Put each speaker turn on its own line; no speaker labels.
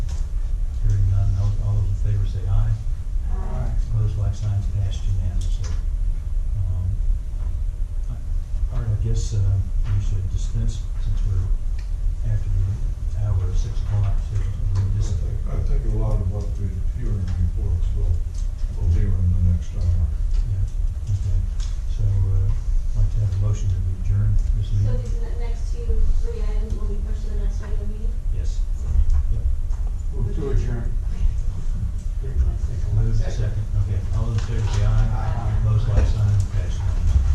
Um, guess uh, we should dispense, since we're after the hour of six o'clock, so we
I
just,
think, I think a lot of what the hearing reports will
uh,